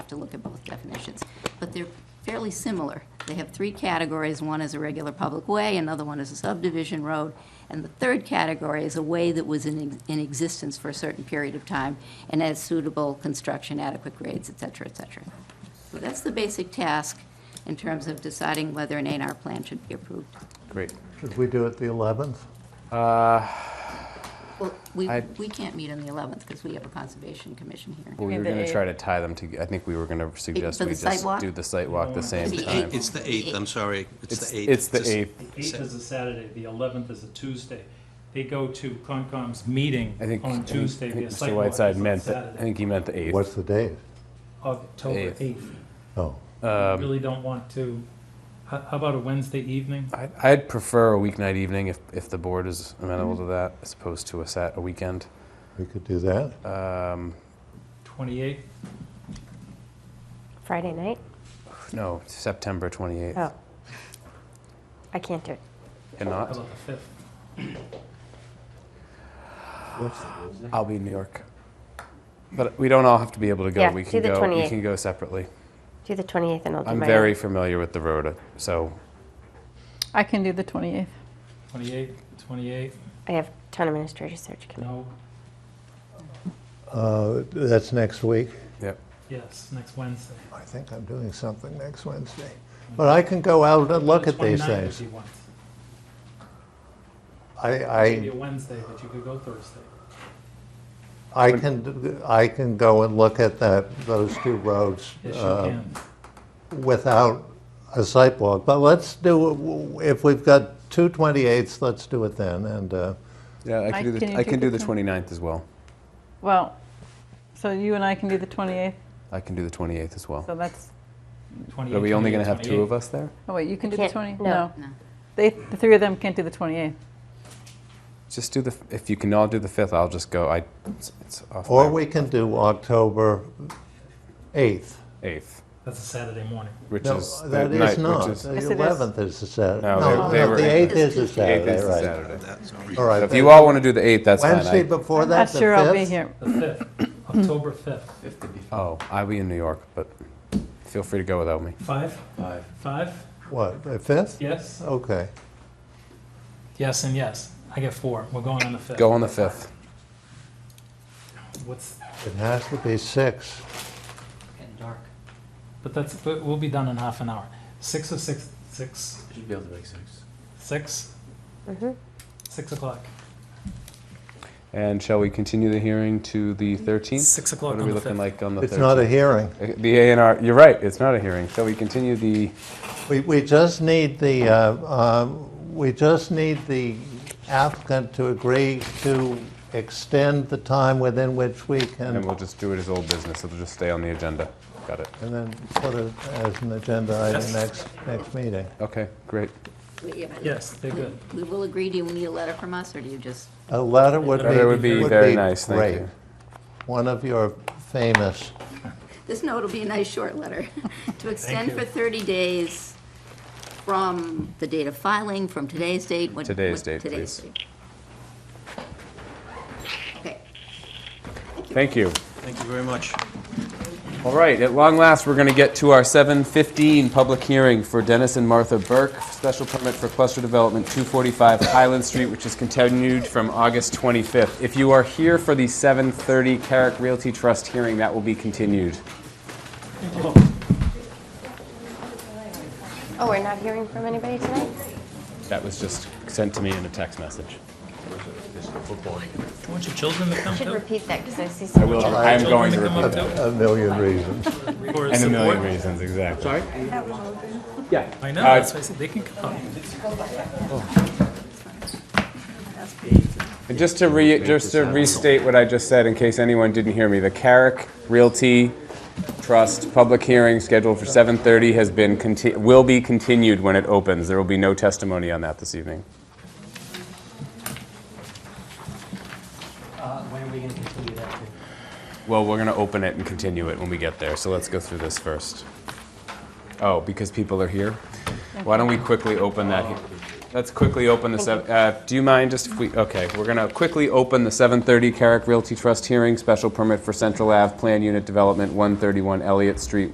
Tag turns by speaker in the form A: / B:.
A: to look at both definitions. But they're fairly similar. They have three categories. One is a regular public way, another one is a subdivision road, and the third category is a way that was in, in existence for a certain period of time and has suitable construction, adequate grades, et cetera, et cetera. So that's the basic task in terms of deciding whether an A&R plan should be approved.
B: Great.
C: Should we do it the 11th?
A: Well, we,
B: I-
A: we can't meet on the 11th because we have a Conservation Commission hearing.
B: Well, we
D: Okay,
B: were
D: the
B: going to
D: eighth.
B: try to tie them together. I think we were going to suggest
A: for
B: we
A: the site
B: just
A: walk?
B: do the site walk the same
A: The
B: time.
A: eighth.
E: It's the eighth, I'm sorry. It's the eighth.
B: It's the
E: Just-
B: eighth.
F: Eighth is a Saturday, the eleventh is a Tuesday. They go to Concom's meeting
B: I think. I
F: on
B: think-
F: Tuesday.
B: I think
F: Their
B: Mr.
F: site walk is
B: Whiteside
F: on
B: meant that, I
F: Saturday,
B: think he meant the
C: What's
B: eighth.
C: the date?
F: October
B: Eighth. Um,
F: eighth.
C: Oh,
F: Really don't want to, how how about a Wednesday evening?
B: I- I'd prefer a weeknight evening if, if the board is amenable to that as opposed to a sat, a weekend.
C: we could do that.
F: Twenty-eighth?
D: Friday night?
B: No, September 28th.
D: Oh. I can't do it.
B: And
F: How
B: not,
F: about the fifth?
B: I'll be in New York. But we don't all have to be able to go.
D: Yeah,
B: We
D: do
B: can
D: the
B: go, we
D: 28th.
B: can go separately.
D: Do the 28th and I'll do
B: I'm
D: my
B: very familiar with the road, so
G: I can do the 28th.
F: Twenty-eighth, twenty-eighth,
D: I have town administrator search committee.
F: no,
C: Uh, That's next week.
B: Yep.
F: yes, next Wednesday.
C: I think I'm doing something next Wednesday. But I can go out and look
F: The
C: at these
F: 29th if
C: things.
F: you want.
C: I,
F: It'd be a
C: I,
F: Wednesday, but you could go Thursday.
C: I can, d- I can go and look at that, those two roads
F: Yes, you
C: uh,
F: can.
C: without a sidewalk. But let's do, if we've got two 28ths, let's do it then. And uh,
B: Yeah, I
G: Mike,
B: can do
G: can
B: the,
G: you
B: I
G: do
B: can
G: the
B: do the
G: 20?
B: 29th as well.
G: Well, so you and I can do the 28th,
B: I can do the 28th as well.
G: so that's,
B: Are
F: 28th,
B: we only going to
F: 28th,
B: have two of
F: 28th.
B: us there?
G: oh wait, you can do the
D: Can't-
G: 20?
D: no.
A: No.
G: They, the three of them can't do the 28th.
B: Just do the, f- if you can all do the 5th, I'll just go, I, it's it's off
C: Or
B: my
C: we can do October 8th.
B: 8th,
F: That's a Saturday morning.
B: which
C: No,
B: is. the
C: that
B: night,
C: is
B: which
C: not.
B: is-
C: The
G: Yes, it is.
C: 11th is a Saturday.
B: No,
C: No,
B: they- they
C: no,
B: were-
C: the 8th is a
B: The 8th
C: Saturday,
B: is the
C: right.
B: Saturday.
E: That's
C: All right.
B: If you all want to do the 8th, that's fine.
C: Wednesday
B: I-
C: before
G: Not
C: that, the 5th?
G: sure I'll be here.
F: The fifth, October fifth.
B: Oh, I'll be in New York, but feel free to go without me.
F: Five? Five. Five?
C: What, the 5th?
F: Yes?
C: Okay.
F: Yes and yes. I get four. We're going on the fifth.
B: Go on the 5th.
F: What's,
C: It has to be 6.
H: Getting dark.
F: but that's, but we'll be done in half an hour. Six or six, six,
H: Should be able to make six.
F: six? Six o'clock.
B: And shall we continue the hearing to the 13th?
F: Six o'clock
B: What are
F: on
B: we
F: the
B: looking
F: 5th.
B: like on the 13th?
C: It's not a hearing.
B: The A and R, you're right, it's not a hearing. Shall we continue the,
C: We, we just need the, uh, um, we just need the applicant to agree to extend the time within which we can,
B: and we'll just do it as old business. It'll just stay on the agenda. Got it.
C: and then put it as an agenda item next, next meeting.
B: Okay, great.
A: Yeah, but
F: Yes, they're good.
A: We will agree. Do you need a letter from us, or do you just?
C: A letter would be,
B: That would be very nice, thank
C: great.
B: you.
C: One of your famous
A: This note will be a nice short letter. To extend for 30 days from the date of filing, from today's date. what-
B: Today's
A: what-
B: date,
A: today's
B: please.
A: date. Okay.
B: Thank you.
E: Thank you very much.
B: All right, at long last, we're going to get to our 7:15 public hearing for Dennis and Martha Burke, special permit for cluster development 245 Highland Street, which is continued from August 25th. If you are here for the 7:30 Carrick Realty Trust hearing, that will be continued.
D: Oh, we're not hearing from anybody tonight?
B: That was just sent to me in a text message.
F: Do you want your children to come
D: Should
F: too?
D: repeat that because I see some.
B: I will, I am going to repeat that.
C: A million reasons.
F: Or
B: And a million
F: support?
B: reasons, exactly. Sorry? Yeah.
F: I know,
B: Uh,
F: that's why I said they can come.
B: And just to re, just to restate what I just said, in case anyone didn't hear me, the Carrick Realty Trust public hearing scheduled for 7:30 has been, conti- will be continued when it opens. There will be no testimony on that this evening.
H: Uh, when are we gonna continue that to?
B: Well, we're going to open it and continue it when we get there, so let's go through this first. Oh, because people are here? Why don't we quickly open that? he- Let's quickly open this up. Uh, Do you mind just, if we, okay, we're going to quickly open the 7:30 Carrick Realty Trust hearing, special permit for Central Ave Plan Unit Development, 131 Elliott Street,